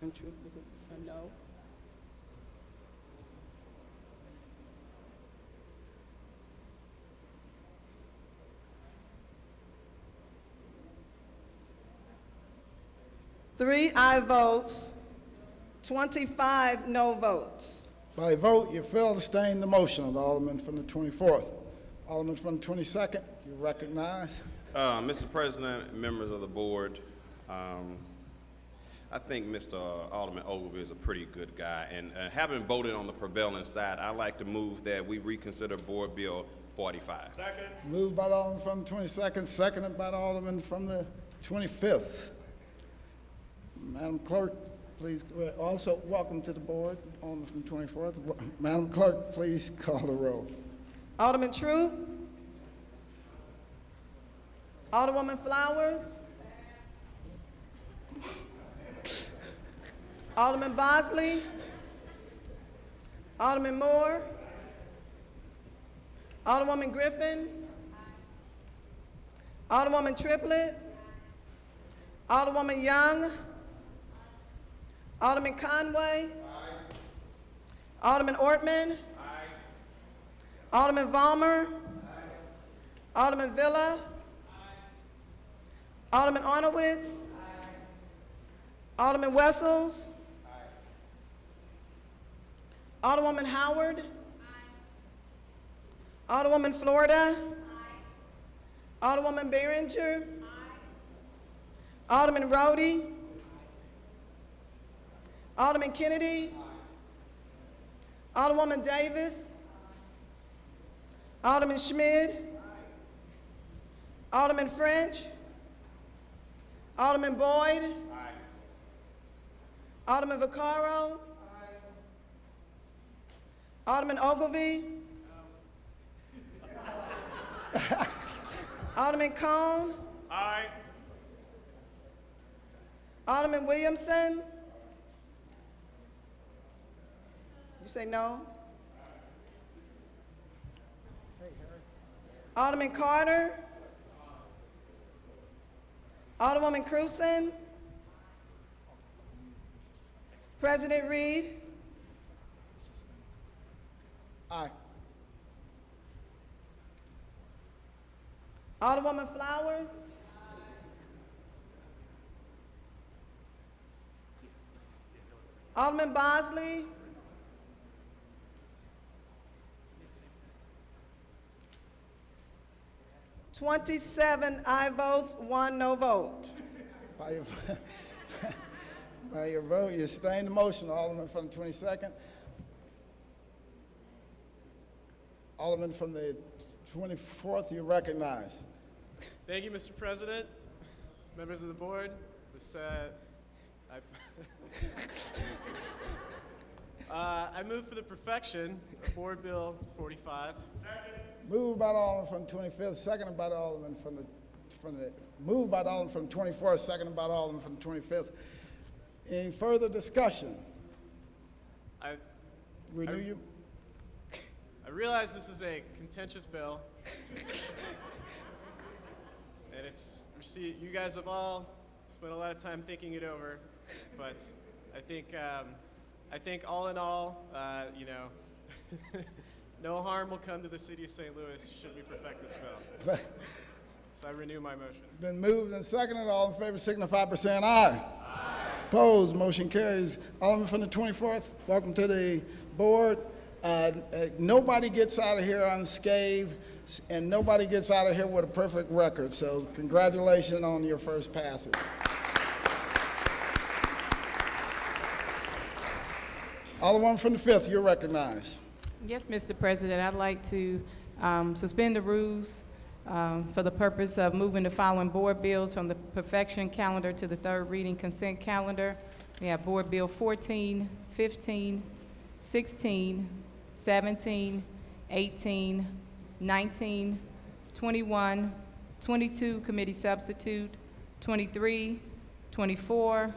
And truth was a, a no. Three aye votes, 25 no votes. By vote, you fail to sustain the motion of the Alderman from the 24th. Alderman from the 22nd, you recognize. Uh, Mr. President, members of the board, um, I think Mr. Alderman Ogilvy is a pretty good guy, and uh, having voted on the prevailing side, I'd like to move that we reconsider Board Bill 45. Moved by the Alderman from the 22nd, seconded by the Alderman from the 25th. Madam Clerk, please, uh, also, welcome to the board, Alderman from the 24th. Madam Clerk, please call the roll. Alderman True? Alderwoman Flowers? Alderman Bosley? Alderman Moore? Alderwoman Griffin? Alderwoman Triplett? Alderwoman Young? Alderman Conway? Alderman Ortman? Alderman Valmer. Alderman Villa. Alderman Arnowitz. Alderman Wessels. Alderwoman Howard. Alderwoman Florida. Alderwoman Behringer. Alderman Rhodey. Alderman Kennedy. Alderwoman Davis. Alderman Schmidt. Alderman French. Alderman Boyd. Alderman Vaccaro. Alderman Ogilvy. Alderman Cone. Alderman Williamson. You say no? Alderman Carter. Alderwoman Cruzen. President Reed. Aye. Alderwoman Flowers. Alderman Bosley. Twenty-seven I votes, one no vote. By your, by your vote, you sustain the motion, Alderman from the 22nd. Alderman from the 24th, you recognize. Thank you, Mr. President, members of the board. This, uh, I, uh, I move for the perfection of Board Bill 45. Moved by the Alderman from the 25th, seconded by the Alderman from the, from the, moved by the Alderman from the 24th, seconded by the Alderman from the 25th. Any further discussion? I, Renew you, I realize this is a contentious bill, and it's received. You guys have all spent a lot of time thinking it over, but I think um, I think all in all, uh, you know, no harm will come to the city of St. Louis should we perfect this bill. So I renew my motion. been moved and seconded, all in favor signify by saying aye. Opposed, motion carries. Alderman from the 24th, welcome to the board. Uh, uh, Nobody gets out of here unscathed, s- and nobody gets out of here with a perfect record, so congratulations on your first passage. Alderman from the 5th, you're recognized. Yes, Mr. President, I'd like to um, suspend the rules um, for the purpose of moving the following board bills from the perfection calendar to the third reading consent calendar. We have Board Bill 14, 15, 16, 17, 18, 19, 21, 22, committee substitute, 23, 24,